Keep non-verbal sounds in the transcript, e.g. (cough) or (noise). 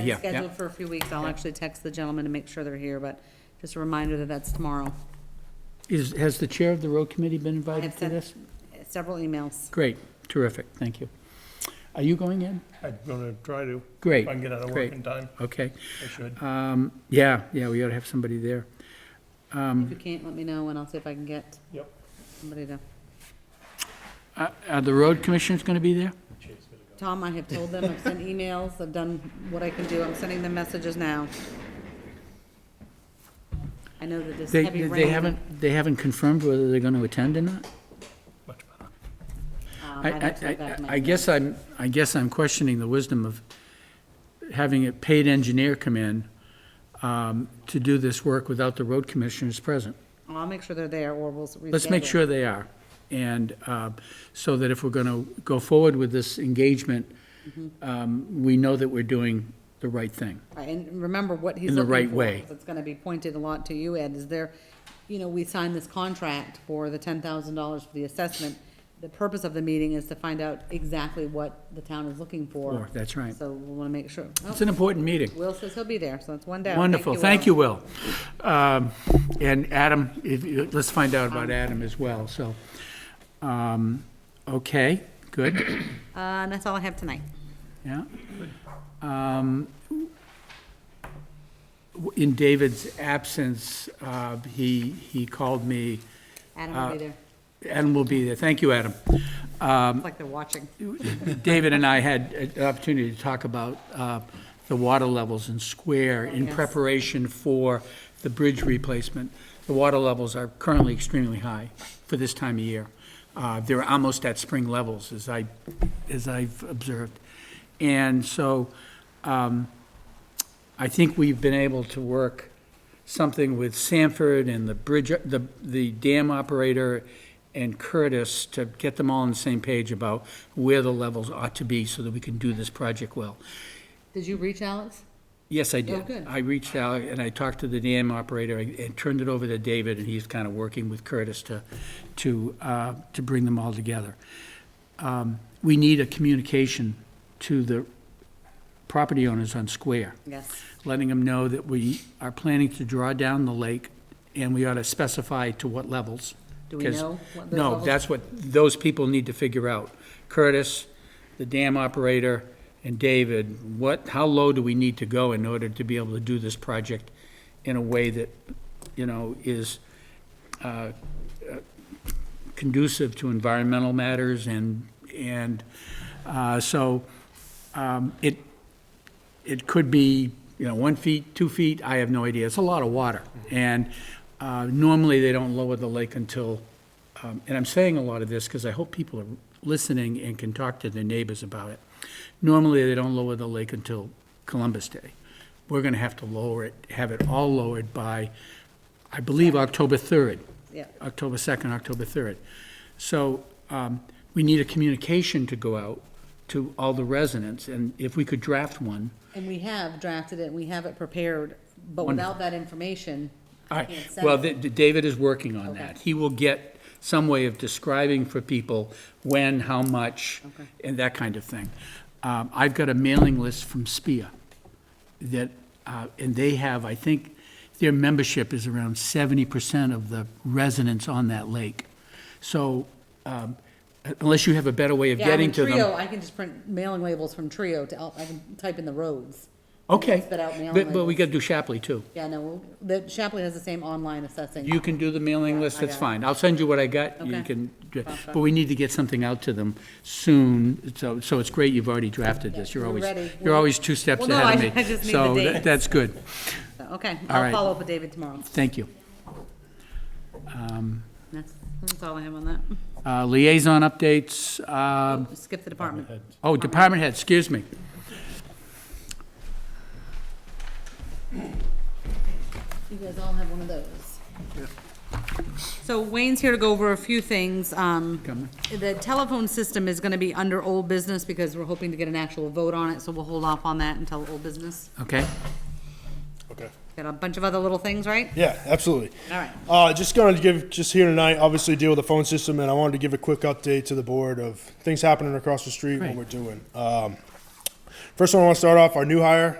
here, yeah. Scheduled for a few weeks. I'll actually text the gentleman to make sure they're here, but just a reminder that that's tomorrow. Is, has the chair of the road committee been I invited have to sent this? Several emails. Great, terrific, thank you. Are you going in? I'm gonna try to. Great. If I can get out of great. work in time, Okay. I should. Um, yeah, yeah, we ought to have somebody there. Um, If you can't, let me know and I'll see if I can get Yep. somebody to. Uh, Are the road commissioners going to be there? Tom, I have told them, I've sent emails, I've done what I can do, I'm sending them messages now. I know that this They, heavy rain. they haven't, they haven't confirmed whether they're going to attend or not? Much better. um, I, I'd have to I, go back I- to my I guess I'm, I guess I'm questioning the wisdom of having a paid engineer come in um, to do this work without the road commissioners present. email. I'll make sure they're there, or we'll reschedule. Let's make sure they are. And uh, so that if we're going to go forward with this engagement, um, we know that we're doing the right thing. Right, And remember what he's In the looking right for, way. 'cause It's gonna be pointed a lot to you, Ed, is there, you know, we signed this contract for the ten thousand dollars for the assessment. The purpose of the meeting is to find out exactly what the town is looking for. Or, that's right. So we wanna make sure. Oh, It's an important meeting. Will says he'll be there, so that's one down. Thank Wonderful, Will. thank you, Will. Um, And Adam, if you- let's find out about Adam as well, so. um, Okay, good, Uh, and that's all I have tonight. yeah. Um, w- In David's absence, uh, he, he called me, Adam will Uh, be there. Adam will be there, thank you, Adam. um, It's like they're watching. David and I had an opportunity to talk about uh, the water levels in Square in Yes. preparation for the bridge replacement. The water levels are currently extremely high for this time of year. Uh, They're almost at spring levels, as I, as I've observed. And so um, I think we've been able to work something with Sanford and the bridge, the, the dam operator and Curtis to get them all on the same page about where the levels ought to be so that we can do this project well. Did you reach Alex? Yes, I Oh, did. good. I reached out and I talked to the dam operator and and turned it over to David, and he's kind of working with Curtis to, to, uh, to bring them all together. Um, We need a communication to the property owners on Square Yes. letting them know that we are planning to draw down the lake, and we ought to specify to what levels. Do we 'cause- know what those No, levels- that's what those people need to figure out. Curtis, the dam operator, and David, what, how low do we need to go in order to be able to do this project in a way that, you know, is uh, uh, conducive to environmental matters and, and, uh, so, um, it, it could be, you know, one feet, two feet, I have no idea. It's a lot of water. And uh, normally, they don't lower the lake until, um, and I'm saying a lot of this because I hope people are listening and can talk to their neighbors about it. Normally, they don't lower the lake until Columbus Day. We're going to have to lower it, have it all lowered by, I believe, October 3rd. Yeah. October 2nd, October 3rd. So um, we need a communication to go out to all the residents, and if we could draft one, And we have drafted it, we have it prepared, but without that information, All I right, can't well, send it. th- th- David is working on Okay. that. He will get some way of describing for people when, how much, Okay. and that kind of thing. Um, I've got a mailing list from SPIA that, uh, and they have, I think, their membership is around seventy percent of the residents on that lake. So, um, unless you have a better way of Yeah, I mean, getting to them. Trio, I can just print mailing labels from Trio to, out- I can type in the roads. Okay. Spit out mailing But, but we labels. gotta do Shapley too. Yeah, no, we'll- the Shapley has the same online assessing. You can do the mailing list, I that's got it. fine. I'll send you what I got, you Okay. can, do it. Sounds but we need to get something out to them soon, so, so it's great you've already drafted this. You're we're always, ready. you're always two steps Well, no, ahead of I- me. I (laughs) just need the So dates. that- that's good, So, Okay, All I'll right. follow up with David tomorrow. thank you. That's, that's all I have on that. Uh, Liaison updates, uh, Skip the department. oh, department head, excuse me. You guys all have one of those. So Wayne's here to go over a few things. Um, Come The telephone system is gonna be under old business because we're hoping to get an actual vote on it, so we'll hold off on that until old business. Okay, Okay. Got a bunch of other little things, right? Yeah, absolutely. All right. Uh, just gonna give, just here tonight, obviously deal with the phone system, and I wanted to give a quick update to the board of things happening across the street, Great. what we're doing. Um, first one I wanna start off, our new hire,